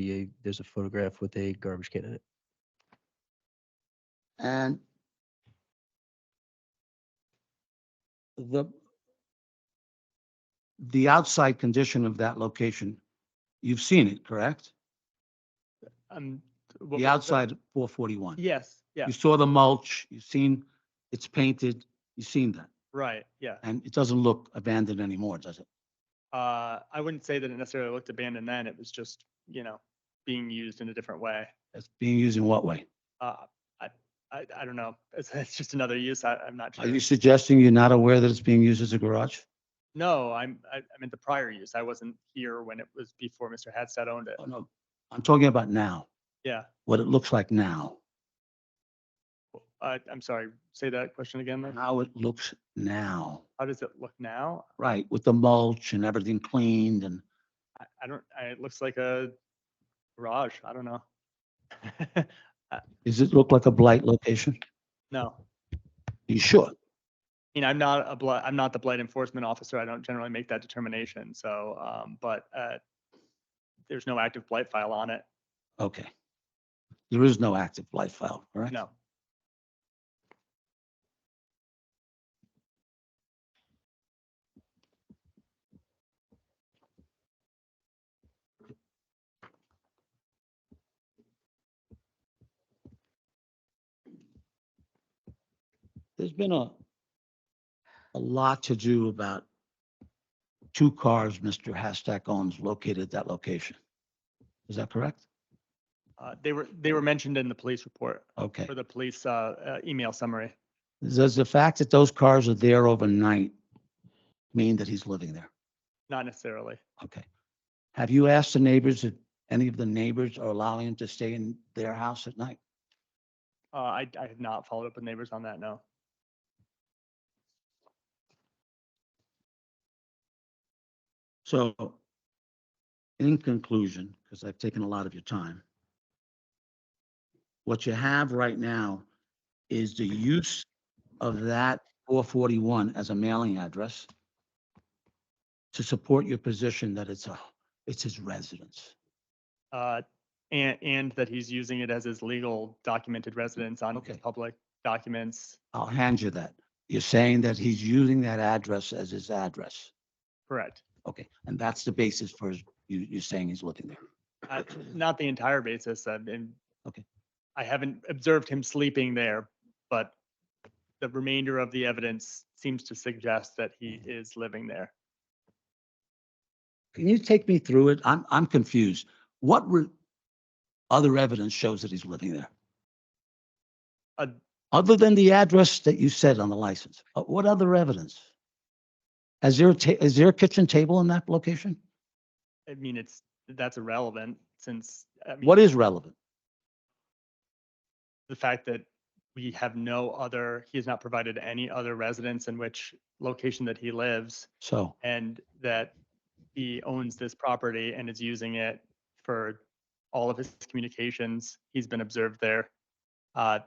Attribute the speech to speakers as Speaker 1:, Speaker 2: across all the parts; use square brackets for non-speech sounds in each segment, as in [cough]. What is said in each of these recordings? Speaker 1: be a, there's a photograph with a garbage can in it.
Speaker 2: And the, the outside condition of that location, you've seen it, correct?
Speaker 3: Um. what was
Speaker 2: The outside of 441.
Speaker 3: Yes, yeah,
Speaker 2: You saw the mulch, you've seen, it's painted, you've seen that.
Speaker 3: right, yeah.
Speaker 2: And it doesn't look abandoned anymore, does it?
Speaker 3: Uh, I wouldn't say that it necessarily looked abandoned then. It was just, you know, being used in a different way.
Speaker 2: It's being used in what way?
Speaker 3: Uh, I, I, I don't know. [laughs] It's, it's just another use. I, I'm not
Speaker 2: Are you
Speaker 3: sure.
Speaker 2: suggesting you're not aware that it's being used as a garage?
Speaker 3: No, I'm, I, I meant the prior use. I wasn't here when it was before Mr. Hadstad owned it.
Speaker 2: Oh, no, I'm talking about now,
Speaker 3: Yeah.
Speaker 2: what it looks like now,
Speaker 3: I, I'm sorry, say that question again. then.
Speaker 2: how it looks now.
Speaker 3: How does it look now?
Speaker 2: Right, with the mulch and everything cleaned and,
Speaker 3: I, I don't, I, it looks like a garage. I don't know. [laughs]
Speaker 2: does it look like a blight location?
Speaker 3: No.
Speaker 2: You sure?
Speaker 3: you know, I'm not a blood, I'm not the blight enforcement officer. I don't generally make that determination. So, um, but, uh, there's no active blight file on it.
Speaker 2: Okay. There is no active blight file, correct?
Speaker 3: No.
Speaker 2: There's been a, a lot to do about two cars Mr. Hashtag owns located at that location. Is that correct?
Speaker 3: Uh, they were, they were mentioned in the police report
Speaker 2: Okay.
Speaker 3: for the police, uh, uh, email summary.
Speaker 2: Does the fact that those cars are there overnight mean that he's living there?
Speaker 3: Not necessarily.
Speaker 2: Okay. Have you asked the neighbors if any of the neighbors are allowing him to stay in their house at night?
Speaker 3: Uh, I, I have not followed up with neighbors on that. No.
Speaker 2: So in conclusion, because I've taken a lot of your time, what you have right now is the use of that four forty-one as a mailing address to support your position that it's a, it's his residence.
Speaker 3: Uh, and, and that he's using it as his legal documented residence on his
Speaker 2: Okay.
Speaker 3: public documents.
Speaker 2: I'll hand you that. You're saying that he's using that address as his address.
Speaker 3: Correct.
Speaker 2: Okay, and that's the basis for his- you, you saying he's living there.
Speaker 3: Uh, [clears throat] Not the entire basis, uh, and.
Speaker 2: Okay.
Speaker 3: I haven't observed him sleeping there, but the remainder of the evidence seems to suggest that he
Speaker 2: Mm-hmm.
Speaker 3: is living there.
Speaker 2: Can you take me through it? I'm, I'm confused. What re- other evidence shows that he's living there?
Speaker 3: Uh,
Speaker 2: Other than the address that you said on the license, uh, what other evidence? Is there, a ta- is there a kitchen table in that location?
Speaker 3: I mean, it's, that's irrelevant since, I mean,
Speaker 2: What is relevant?
Speaker 3: the fact that we have no other, he has not provided any other residence in which location that he lives
Speaker 2: So,
Speaker 3: and that he owns this property and is using it for all of his communications. He's been observed there. Uh,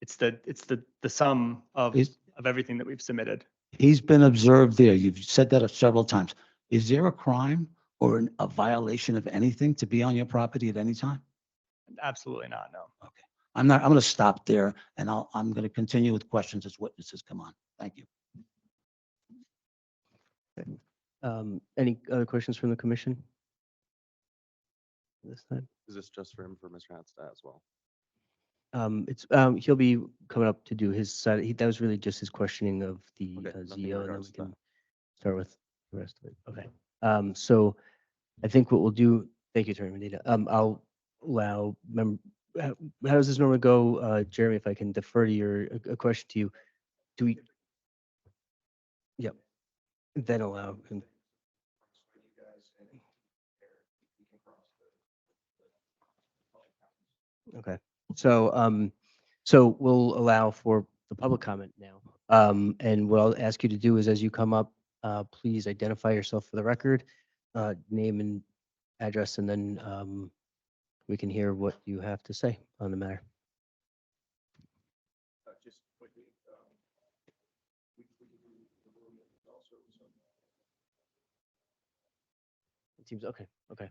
Speaker 3: It's the, it's the, the sum of,
Speaker 2: is,
Speaker 3: of everything that we've submitted.
Speaker 2: he's been observed there. You've said that several times. Is there a crime or an- a violation of anything to be on your property at any time?
Speaker 3: Absolutely not, no.
Speaker 2: I'm not, I'm going to stop there and I'll, I'm going to continue with questions as witnesses come on. Thank you.
Speaker 1: Um, any other questions from the commission? This time,
Speaker 4: Is this just for him, for Mr. Hatstat as well?
Speaker 1: um, it's, um, he'll be coming up to do his side. He, that was really just his questioning of the
Speaker 4: Okay,
Speaker 1: uh,
Speaker 4: nothing in
Speaker 1: ZO and then
Speaker 4: regards
Speaker 1: we
Speaker 4: to that.
Speaker 1: can start with the rest of it. Okay. Um, so I think what we'll do, thank you, Attorney Medina. Um, I'll allow mem- how, how does this normally go? Uh, Jeremy, if I can defer to your, uh, a, a question to you. Do we? Yep. Then allow him. Okay, so, um, so we'll allow for the public comment now. Um, and what I'll ask you to do is as you come up, uh, please identify yourself for the record, uh, name and address, and then, um, we can hear what you have to say on the matter. It seems, okay, okay.